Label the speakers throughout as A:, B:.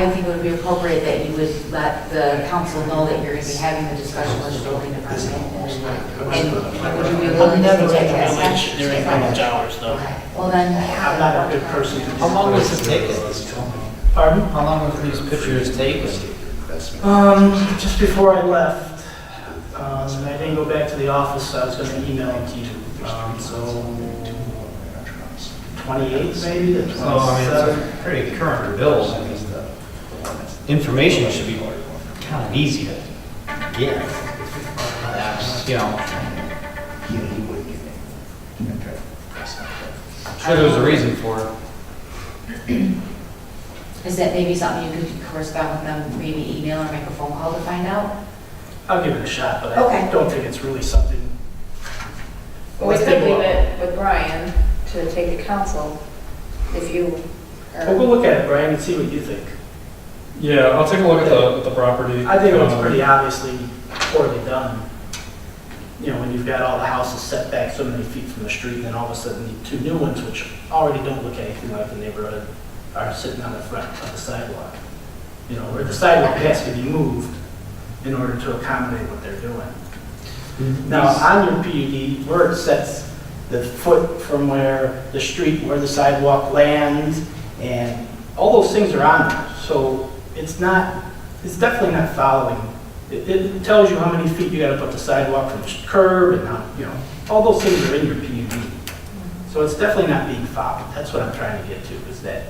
A: I think it would be appropriate that you would let the council know that you're going to be having the discussion with the building department. And would you be willing to take that
B: Village,
A: step?
B: They're in village hours though.
A: Okay. Well, then.
C: I'm not a good person to.
D: How long was it taken?
C: Pardon?
D: How long were these pictures taken?
C: Um, just before I left, um, and I didn't go back to the office, so I was gonna email it to you. Um, so twenty-eight maybe, the
D: So, Oh, I mean,
C: twenty-seven.
D: it's a pretty current bill. I mean, Information should be kind of easy to get. That's, you know, I'm sure there's a reason for it.
A: Is that maybe something you could correspond with them, maybe email or make a phone call to find out?
C: I'll give it a shot, but
A: Okay.
C: I don't think it's really something.
E: Well, we could leave it with Brian to take to council if you
C: We'll go
E: are.
C: look at it, Brian, and see what you think.
F: Yeah, I'll take a look at the, at the property.
C: I think it looks
F: Um,
C: pretty obviously poorly done. You know, when you've got all the houses set back so many feet from the street, and then all of a sudden, the two new ones, which already don't look anything like the neighborhood, are sitting on the front of the sidewalk. You know, where the sidewalk has to be moved in order to accommodate what they're doing. Now, on your PUD, where it sets the foot from where the street, where the sidewalk lands, and all those things are on there. So it's not, it's definitely not following. It, it tells you how many feet you gotta put the sidewalk from the curb and how, you know, all those things are in your PUD. So it's definitely not being followed. That's what I'm trying to get to, is that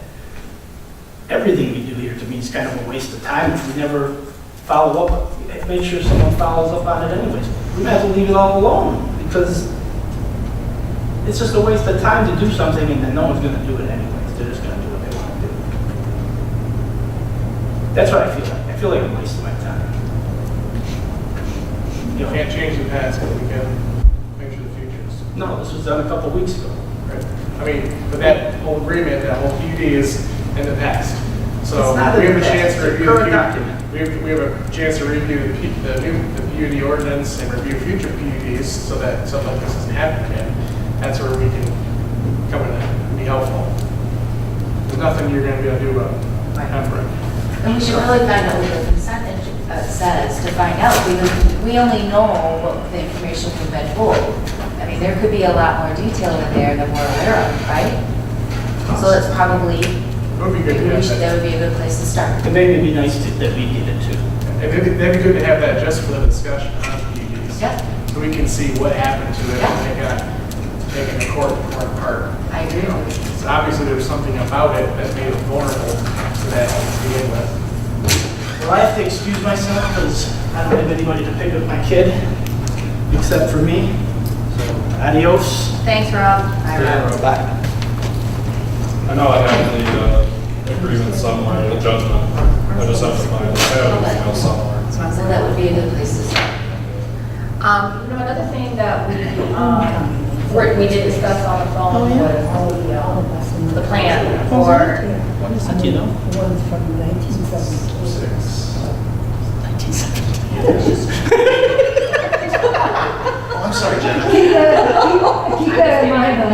C: everything we do here to me is kind of a waste of time if we never follow up, make sure someone follows up on it anyways. We might as well leave it all alone, because it's just a waste of time to do something and then no one's gonna do it anyways. They're just gonna do what they wanna do. That's what I feel like. I feel like I'm wasting my time. You know,
G: Can't change the past, but we can make sure the future is.
C: no, this was done a couple weeks ago.
G: right. I mean, but that whole agreement, that whole PUD is in the past. So
C: It's not in
G: we have a
C: the past,
G: chance
C: it's
G: to
C: a
G: review.
C: current
G: the-
C: document.
G: We have, we have a chance to review the P- the new, the PUD ordinance and review future PUDs so that something like this doesn't happen again. That's where we can come in and be helpful. There's nothing you're gonna be able to do about it.
A: Right.
G: Effort.
A: And we should really find out what the consent ing- uh, says to find out, because we only know what the information we've been told. I mean, there could be a lot more detail in there than we're aware of, right? So it's probably,
G: It would be good to
A: maybe we
G: have
A: should- that
G: that.
A: would be a good place to start.
C: And maybe it'd be nice to- that we did it too.
G: It'd be, that'd be good to have that just for the discussion on PUDs.
A: Yep,
G: so we can see what happened to it when it got taken to court and torn apart.
A: I agree with you.
G: So obviously, there was something about it that made it vulnerable to that to begin with.
C: Well, I have to excuse myself because I don't have anybody to pick up my kid except for me. So Adios.
E: Thanks, Rob. I
D: Bye.
F: I know I have the uh, agreement somewhere, the judgment. I just have to find, it. I have it email somewhere.
A: So that would be a good place to start.
E: Um, you know, another thing that we, um, were- we did discuss on the phone was the, um, the plan for
C: What do you know?
H: One's from 1970.
G: Six.
I: I'm sorry, Jenna.
H: Keep that in mind, though.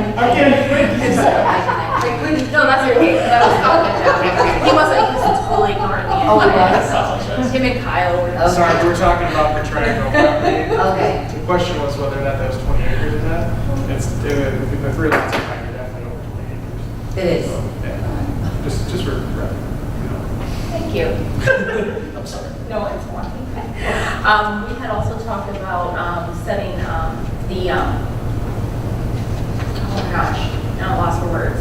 E: No, that's your, that was Scotland Jack. He wasn't, he was totally ignoring me.
A: Oh, he was?
E: Him and Kyle were.
A: Okay.
G: Sorry, we were talking about the triangle property.
A: Okay,
G: The question was whether or not that was 20 acres or not. It's, uh, if we put three lots of time, you're definitely over 20 acres.
A: it is.
G: So, yeah, just, just for, you know.
E: Thank you. I'm sorry. No, it's fine. Um, we had also talked about, um, setting, um, the, um, oh my gosh, now I lost for words.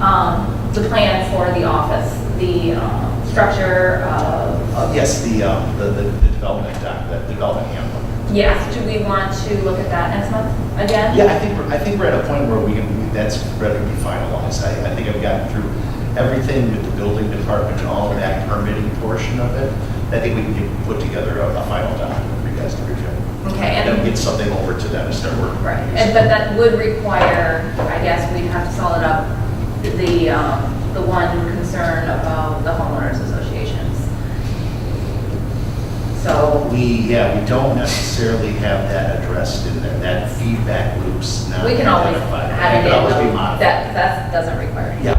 E: Um, the plan for the office, the, um, structure of,
I: Uh, Yes, the, um, the, the the development doc, that development handbook.
E: yes, do we want to look at that next month again?
I: Yeah, I think, we're I think we're at a point where we can, that's ready to be finalized. I, I think I've gotten through everything with the building department and all of that permitting portion of it. I think we can get, put together a, a final doc for you guys to review.
E: Okay,
I: And then
E: and,
I: get something over to them to start working.
E: right, and, but that would require, I guess, we'd have to solid up the, um, the one concern about the homeowners associations. So.
I: We, yeah, we don't necessarily have that addressed in there, that feedback loop's not
E: We can always
I: identified.
E: add
I: It
E: it in.
I: could always be
E: though.
I: modified.
E: That, that doesn't require. any
I: Yeah,